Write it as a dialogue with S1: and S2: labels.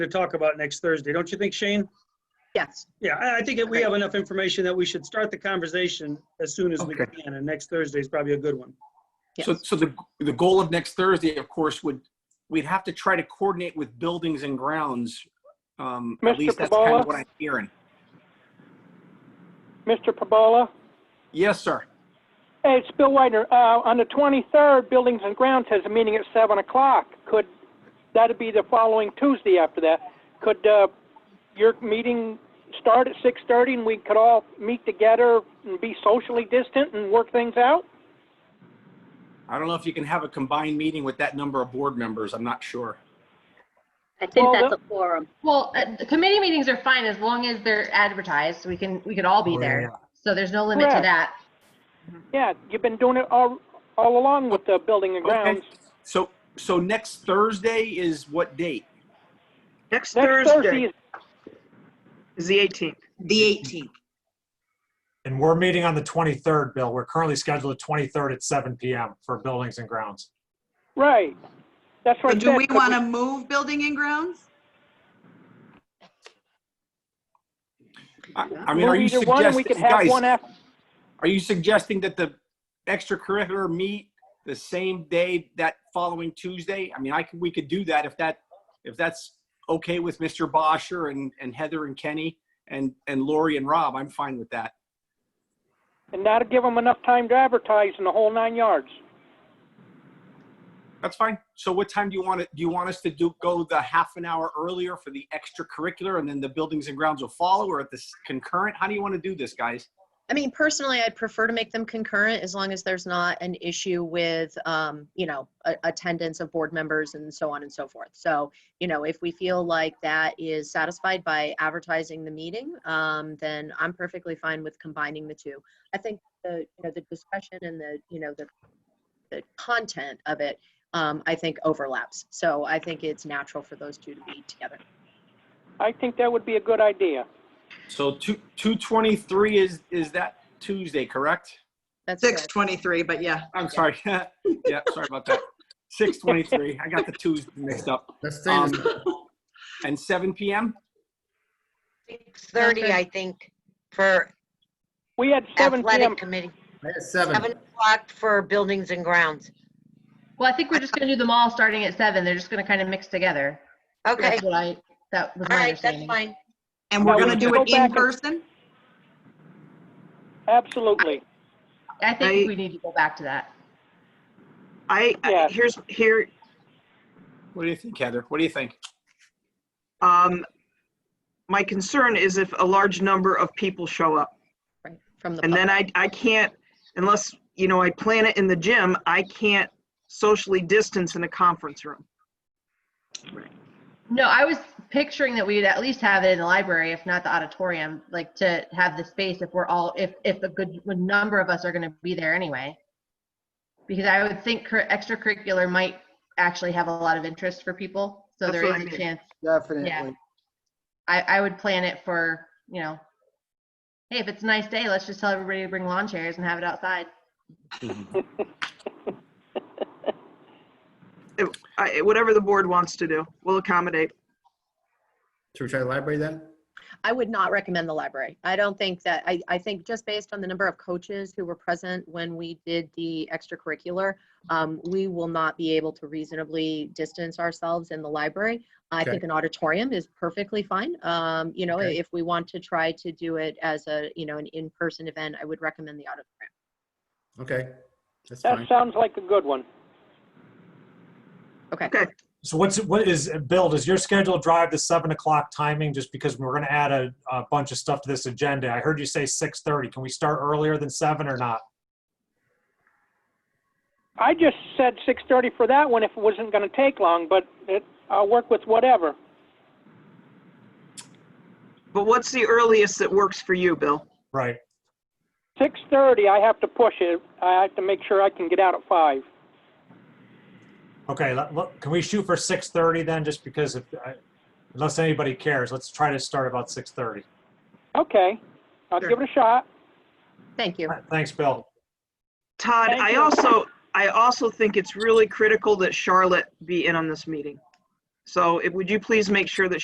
S1: to talk about next Thursday, don't you think, Shane?
S2: Yes.
S1: Yeah, I, I think that we have enough information that we should start the conversation as soon as we
S3: Okay.
S1: can, and next Thursday is probably a good one.
S3: So, so the, the goal of next Thursday, of course, would, we'd have to try to coordinate with buildings and grounds. Um,
S4: Mr.
S3: at least that's kind
S4: Pabola?
S3: of what I'm hearing.
S4: Mr. Pabola?
S3: Yes, sir.
S4: Hey, it's Bill Widener. Uh, on the 23rd, Buildings and Grounds has a meeting at 7 o'clock. Could, that'd be the following Tuesday after that. Could, uh, your meeting start at 6:30 and we could all meet together and be socially distant and work things out?
S3: I don't know if you can have a combined meeting with that number of board members. I'm not sure.
S2: I think
S4: Well,
S2: that's a
S4: the-
S2: quorum.
S5: Well, uh, the committee meetings are fine as long as they're advertised. We can, we can all be there. So there's no limit to
S4: Correct.
S5: that.
S4: Yeah, you've been doing it all, all along with the Building and
S3: Okay.
S4: Grounds.
S3: So, so next Thursday is what date?
S6: Next
S4: Next Thursday
S6: Thursday
S4: is,
S6: is the 18th.
S7: The 18th.
S8: And we're meeting on the 23rd, Bill. We're currently scheduled the 23rd at 7 PM for buildings and grounds.
S4: right. That's what I
S7: So do
S4: said.
S7: we
S4: Could
S7: want to move building and grounds?
S3: I, I mean, are
S4: move
S3: you
S4: either one and
S3: suggesting,
S4: We could have
S3: guys,
S4: one after,
S3: are you suggesting that the extracurricular meet the same day that following Tuesday? I mean, I could, we could do that if that, if that's okay with Mr. Bosher and, and Heather and Kenny and, and Lori and Rob, I'm fine with that.
S4: and that'll give them enough time to advertise in the whole nine yards.
S3: That's fine. So what time do you want it? Do you want us to do, go the half an hour earlier for the extracurricular and then the buildings and grounds will follow or at this concurrent? How do you want to do this, guys?
S9: I mean, personally, I'd prefer to make them concurrent as long as there's not an issue with, um, you know, a- attendance of board members and so on and so forth. So, you know, if we feel like that is satisfied by advertising the meeting, um, then I'm perfectly fine with combining the two. I think the, you know, the discussion and the, you know, the, the content of it, um, I think overlaps. So I think it's natural for those two to be together.
S4: I think that would be a good idea.
S3: So two, 223 is, is that Tuesday, correct?
S9: That's good.
S7: 6:23, but yeah.
S3: I'm sorry. yeah, sorry about that. 623. I got the twos mixed up. Um,
S10: Let's say this.
S3: And 7 p.m.
S2: 6:30, I think, for
S4: We had seven PM.
S2: athletic committee,
S10: At seven.
S2: 7 o'clock for buildings and grounds.
S5: Well, I think we're just going to do them all starting at seven. They're just going to kind of mix together.
S2: Okay,
S5: That's what I, that was
S2: all
S5: my
S2: right, that's
S5: understanding.
S2: fine.
S7: And
S4: Now,
S7: we're
S4: we
S7: going to
S4: should
S7: do
S4: go
S7: it
S4: back
S7: in
S4: and-
S7: person?
S4: Absolutely.
S5: I
S7: I-
S5: think we need to go back to that.
S6: I, I-
S4: Yeah.
S6: here's, here,
S3: What do you think, Heather? What do you think?
S6: um, my concern is if a large number of people show up.
S9: Right, from the
S6: And
S9: public.
S6: then I, I can't, unless, you know, I plan it in the gym, I can't socially distance in a conference room.
S5: No, I was picturing that we'd at least have it in the library, if not the auditorium, like to have the space if we're all, if, if a good number of us are going to be there anyway. Because I would think cur- extracurricular might actually have a lot of interest for people. So
S6: That's
S5: there
S6: what I
S5: is a
S6: mean.
S5: chance.
S10: Definitely.
S5: I, I would plan it for, you know, hey, if it's a nice day, let's just tell everybody to bring lawn chairs and have it outside.
S6: I, whatever the board wants to do, we'll accommodate.
S10: Should we try the library then?
S9: I would not recommend the library. I don't think that, I, I think just based on the number of coaches who were present when we did the extracurricular, um, we will not be able to reasonably distance ourselves in the library. I
S10: Okay.
S9: think an auditorium is perfectly fine. Um, you know,
S10: Okay.
S9: if we want to try to do it as a, you know, an in-person event, I would recommend the auditorium.
S10: Okay, that's
S4: That
S10: fine.
S4: sounds like a good one.
S9: Okay.
S6: Okay.
S8: So what's, what is, Bill, does your schedule drive the 7 o'clock timing just because we're going to add a, a bunch of stuff to this agenda? I heard you say 6:30. Can we start earlier than 7 or not?
S4: I just said 6:30 for that one if it wasn't going to take long, but it, I'll work with whatever.
S6: But what's the earliest that works for you, Bill?
S8: Right.
S4: 6:30, I have to push it. I have to make sure I can get out at five.
S8: Okay, let- let- can we shoot for 6:30 then, just because if, I- unless anybody cares, let's try to start about 6:30.
S4: Okay, I'll
S6: Sure.
S4: give it a shot.
S9: Thank you.
S8: All right, Thanks, Bill.
S6: Todd,
S4: Thank
S6: I
S4: you.
S6: also, I also think it's really critical that Charlotte be in on this meeting. So if, would you please make sure that